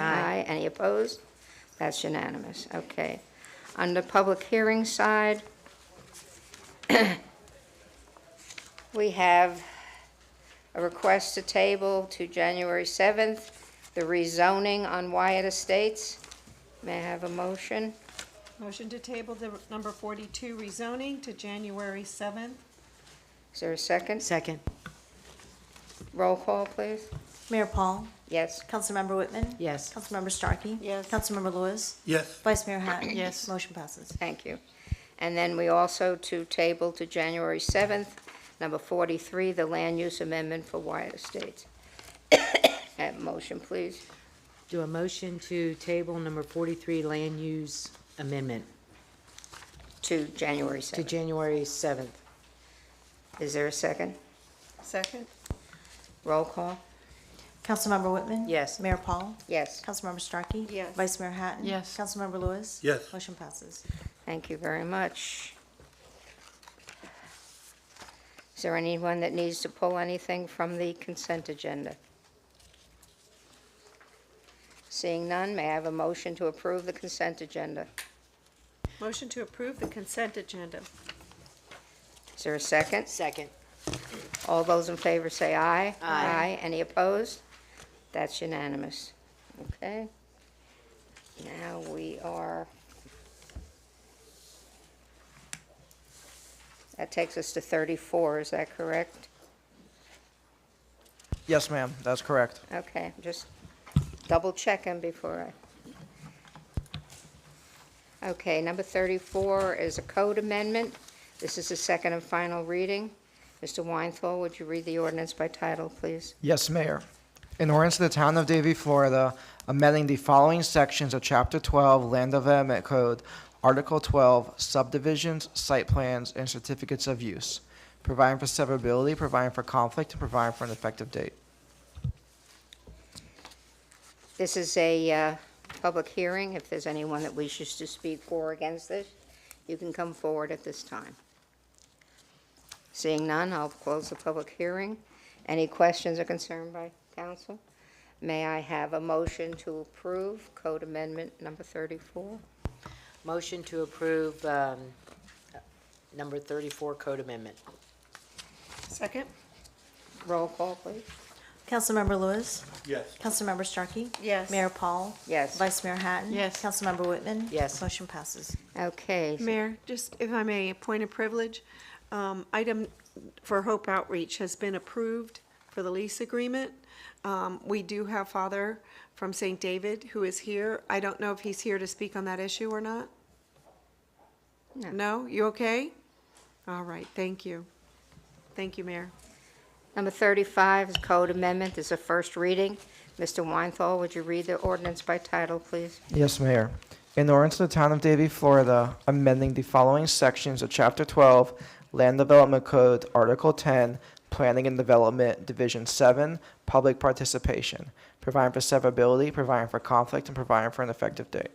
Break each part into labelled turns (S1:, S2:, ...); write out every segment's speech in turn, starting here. S1: Any opposed? That's unanimous, okay. On the public hearing side, we have a request to table to January 7th, the rezoning on Wyatt Estates. May I have a motion?
S2: Motion to table the number 42 rezoning to January 7th.
S1: Is there a second?
S3: Second.
S1: Roll call, please.
S4: Mayor Paul,
S1: Yes.
S4: Councilmember Whitman.
S3: Yes.
S4: Councilmember Starkey.
S2: Yes.
S4: Councilmember Lewis,
S5: Yes,
S4: Vice Mayor Hatton.
S3: Yes.
S4: Motion passes.
S1: Thank you. And then we also to table to January 7th, number 43, the land use amendment for Wyatt Estates. Have a motion, please.
S3: Do a motion to table number 43 land use amendment
S1: To January
S3: to
S1: 7th.
S3: January 7th.
S1: Is there a second?
S2: Second?
S1: Roll call?
S4: Councilmember Whitman.
S3: Yes.
S4: Mayor Paul,
S1: Yes.
S4: Councilmember Starkey.
S2: Yes.
S4: Vice Mayor Hatton.
S3: Yes.
S4: Councilmember Lewis.
S5: Yes.
S4: Motion passes.
S1: Thank you very much. Is there anyone that needs to pull anything from the consent agenda? Seeing none, may I have a motion to approve the consent agenda?
S2: Motion to approve the consent agenda.
S1: Is there a second?
S3: Second.
S1: All those in favor say aye.
S3: Aye.
S1: Any opposed? That's unanimous. Okay. Now we are... That takes us to 34, is that correct?
S6: Yes, ma'am, that's correct.
S1: Okay, just double checking before I... Okay, number 34 is a code amendment. This is the second and final reading. Mr. Weinthal, would you read the ordinance by title, please?
S6: Yes, Mayor. In ordinance to the Town of Davie, Florida, amending the following sections of Chapter 12 Land Development Code, Article 12 Subdivisions, Site Plans, and Certificates of Use, providing for severability, providing for conflict, and providing for an effective date.
S1: This is a uh, public hearing. If there's anyone that wishes to speak for or against this, you can come forward at this time. Seeing none, I'll close the public hearing. Any questions or concern by council? May I have a motion to approve Code Amendment Number 34?
S3: Motion to approve um, number 34 code amendment.
S2: Second?
S1: Roll call, please.
S4: Councilmember Lewis,
S5: yes.
S4: Councilmember Starkey.
S2: Yes.
S4: Mayor Paul,
S1: Yes.
S4: Vice Mayor Hatton.
S3: Yes.
S4: Councilmember Whitman.
S3: Yes.
S4: Motion passes.
S1: Okay.
S2: Mayor, just if I may, a point of privilege. Um, Item for Hope Outreach has been approved for the lease agreement. Um, We do have Father from St. David who is here. I don't know if he's here to speak on that issue or not.
S1: No.
S2: No? You okay? All right, thank you. Thank you, Mayor.
S1: Number 35 is Code Amendment. This is a first reading. Mr. Weinthal, would you read the ordinance by title, please?
S6: Yes, Mayor. In ordinance to the Town of Davie, Florida, amending the following sections of Chapter 12, Land Development Code, Article 10, Planning and Development, Division 7, Public Participation, providing for severability, providing for conflict, and providing for an effective date.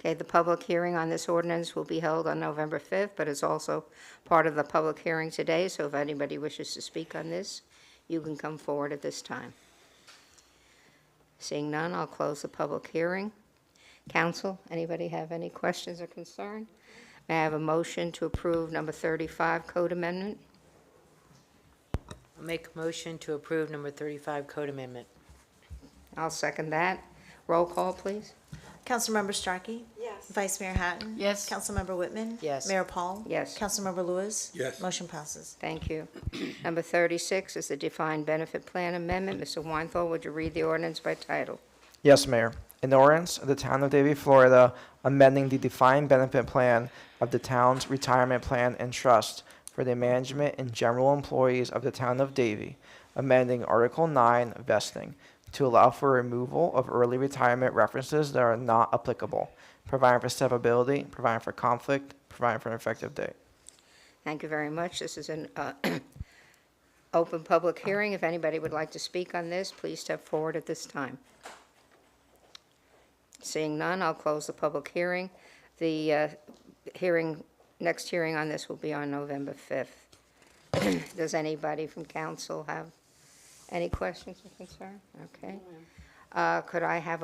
S1: Okay, the public hearing on this ordinance will be held on November 5th, but it's also part of the public hearing today, so if anybody wishes to speak on this, you can come forward at this time. Seeing none, I'll close the public hearing. Council, anybody have any questions or concern? May I have a motion to approve number 35 code amendment?
S3: Make a motion to approve number 35 code amendment.
S1: I'll second that. Roll call, please.
S4: Councilmember Starkey. Yes. Vice Mayor Hatton.
S3: Yes.
S4: Councilmember Whitman.
S3: Yes.
S4: Mayor Paul.
S1: Yes.
S4: Councilmember Lewis.
S5: Yes.
S4: Motion passes.
S1: Thank you. Number 36 is the defined benefit plan amendment. Mr. Weinthal, would you read the ordinance by title?
S6: Yes, Mayor. In ordinance of the Town of Davie, Florida, amending the defined benefit plan of the town's retirement plan and trust for the management and general employees of the Town of Davie, amending Article 9 vesting to allow for removal of early retirement references that are not applicable, providing for severability, providing for conflict, providing for an effective date.
S1: Thank you very much. This is an uh, open public hearing. If anybody would like to speak on this, please step forward at this time. Seeing none, I'll close the public hearing. The uh, hearing, next hearing on this will be on November 5th. Does anybody from council have any questions or concern? Okay. Uh, Could I have a